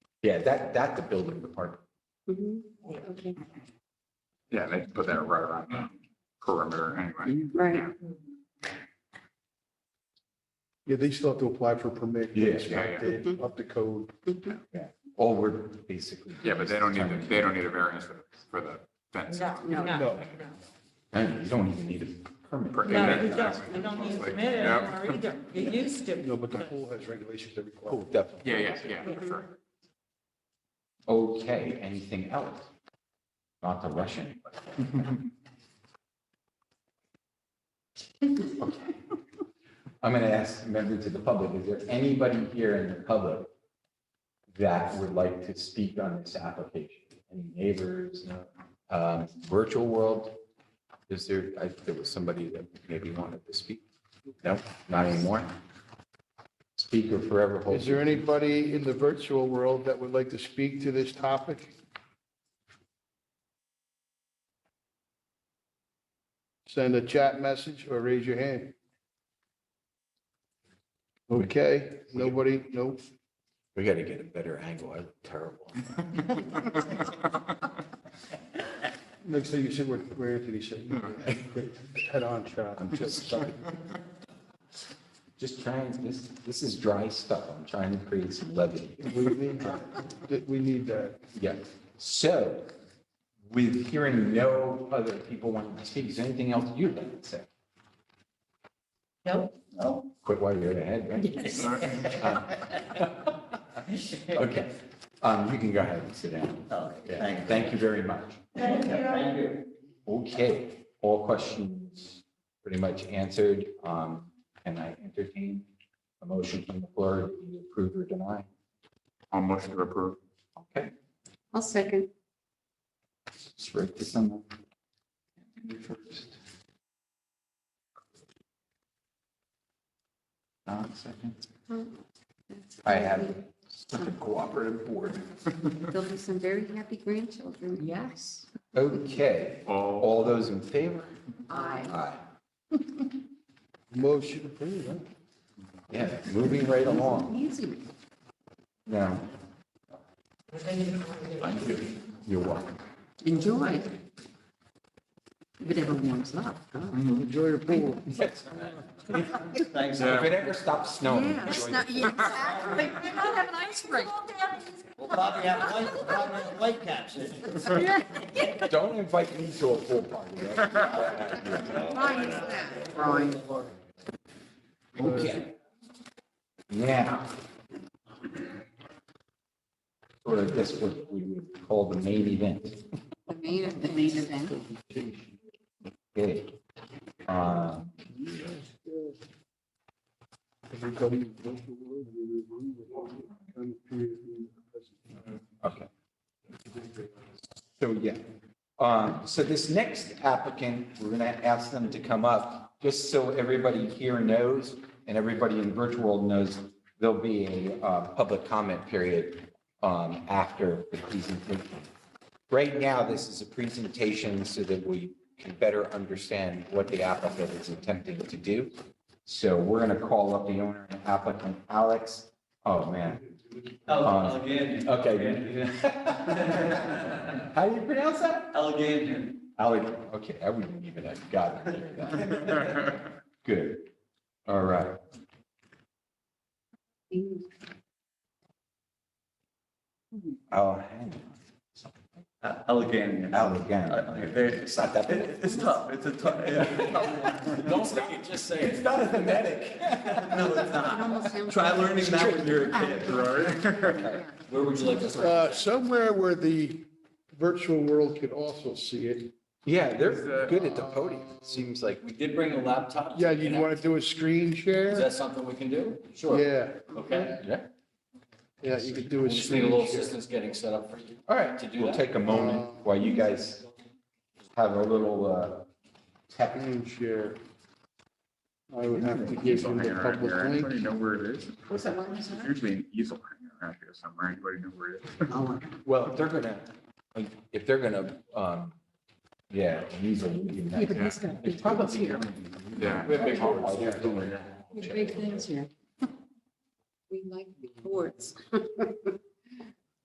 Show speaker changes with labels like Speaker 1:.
Speaker 1: Yeah, that, that the building department.
Speaker 2: Mhm. Okay.
Speaker 3: Yeah, they put that right around the perimeter anyway.
Speaker 2: Right.
Speaker 4: Yeah, they still have to apply for permit.
Speaker 1: Yeah, yeah,
Speaker 4: inspect it,
Speaker 2: yeah.
Speaker 4: Up to code.
Speaker 2: Mhm.
Speaker 1: All we're basically.
Speaker 3: Yeah, but they don't need, the- they don't need a variance for for the fence.
Speaker 2: No.
Speaker 4: No.
Speaker 1: And you don't even need a permit.
Speaker 3: For-
Speaker 5: No, you don't, you don't need to admit it
Speaker 3: Yeah.
Speaker 5: anymore either. You used to.
Speaker 4: No, but the pool has regulations that require.
Speaker 1: Oh, definitely.
Speaker 3: Yeah, yeah, yeah, for sure.
Speaker 1: Okay, anything else? Not the Russian. I'm going to ask members of the public, is there anybody here in the public that would like to speak on this application? Any neighbors, no? Um, virtual world? Is there, I, there was somebody that maybe wanted to speak? No, not anymore? Speaker forever holds.
Speaker 6: Is there anybody in the virtual world that would like to speak to this topic? Send a chat message or raise your hand. Okay, nobody, nope.
Speaker 1: We got to get a better angle. I look terrible.
Speaker 4: Next thing you said, where- where Anthony said, head on shot.
Speaker 1: I'm just trying. Just trying, this, this is dry stuff. I'm trying to create some levity.
Speaker 4: We need that. We need that.
Speaker 1: Yeah. So with hearing no other people wanting to speak, is there anything else you'd like to say?
Speaker 5: Nope.
Speaker 1: No. Quit while you're ahead, right? Uh, Okay. Um, you can go ahead and sit down. Yeah. Thank you very much.
Speaker 5: Thank you.
Speaker 1: Okay, all questions pretty much answered. Um, can I entertain a motion from the floor to either approve or deny?
Speaker 3: I'll motion to approve.
Speaker 1: Okay,
Speaker 2: I'll second.
Speaker 1: let's write this on. the- Don, second. I have such a cooperative board.
Speaker 2: There'll be some very happy grandchildren.
Speaker 5: Yes.
Speaker 1: Okay,
Speaker 3: All,
Speaker 1: all those in favor?
Speaker 2: Aye.
Speaker 1: Aye.
Speaker 4: Motion approved, huh?
Speaker 1: Yeah, moving right along.
Speaker 2: Easy.
Speaker 1: Now. Thank you. You're welcome.
Speaker 2: Enjoy. But everyone warms up. God.
Speaker 4: Mm-hmm. Enjoy your pool.
Speaker 1: Yes.
Speaker 3: thanks.
Speaker 1: If it ever stops snowing.
Speaker 2: Yeah, it's not, yeah, exactly. Why not have an ice rink?
Speaker 7: We'll probably have white, we'll probably have white caps in.
Speaker 1: Don't invite me to a pool party.
Speaker 2: Why is that?
Speaker 1: Okay. Now. Sort of this what we would call the main event.
Speaker 2: The main, the main event.
Speaker 1: Okay. Uh,
Speaker 4: Everybody in the virtual world, we agree with all the period in the present.
Speaker 1: Okay. So, yeah. Um, So this next applicant, we're going to ask them to come up, just so everybody here knows and everybody in virtual world knows, there'll be a uh, public comment period um, after the presentation. Right now, this is a presentation so that we can better understand what the applicant is attempting to do. So we're going to call up the owner and applicant, Alex. Oh, man. Um,
Speaker 7: uh, Allegan.
Speaker 1: Okay. How do you pronounce that?
Speaker 7: Allegan.
Speaker 1: Alec, okay, I wouldn't even have gotten it. Good. All right. Oh, hang
Speaker 7: Allegan.
Speaker 1: on. Alec again. It's not that bad.
Speaker 7: It's tough, it's a tough. Don't say it, just say it. It's not a thematic. No, it's
Speaker 2: It
Speaker 7: not.
Speaker 2: almost sounds.
Speaker 7: Try learning that when you're a kid, right? Where would you like to start?
Speaker 6: Uh, Somewhere where the virtual world could also see it.
Speaker 1: Yeah, they're good at the podium. It Seems like,
Speaker 7: We did bring a laptop.
Speaker 6: Yeah, you'd want to do a screen
Speaker 7: Is
Speaker 6: share?
Speaker 7: that something we can do? Sure.
Speaker 6: Yeah,
Speaker 7: Okay.
Speaker 1: yeah.
Speaker 6: yeah, you could do
Speaker 7: We
Speaker 6: a
Speaker 7: just need a little
Speaker 6: screen share.
Speaker 7: assistance getting set up for you.
Speaker 1: All right,
Speaker 7: To do
Speaker 1: we'll
Speaker 7: that?
Speaker 1: take a moment while you guys have a little uh, tech.
Speaker 6: Screen share. I would have to give
Speaker 3: Easel
Speaker 6: him the
Speaker 3: hanger out
Speaker 6: public
Speaker 3: here.
Speaker 6: link.
Speaker 3: Anybody know where it is?
Speaker 2: What's that one? Is that-
Speaker 3: Usually an easel hanger around here somewhere. Anybody know where it is?
Speaker 2: Oh,
Speaker 1: Well, if they're gonna, like, if they're gonna, um, yeah, easily.
Speaker 2: Yeah, but he's got big
Speaker 1: It's
Speaker 2: things
Speaker 1: probably.
Speaker 2: here.
Speaker 3: Yeah.
Speaker 7: We have big
Speaker 1: Oh,
Speaker 7: homework.
Speaker 1: yeah, don't worry.
Speaker 2: Big things here. We like big boards.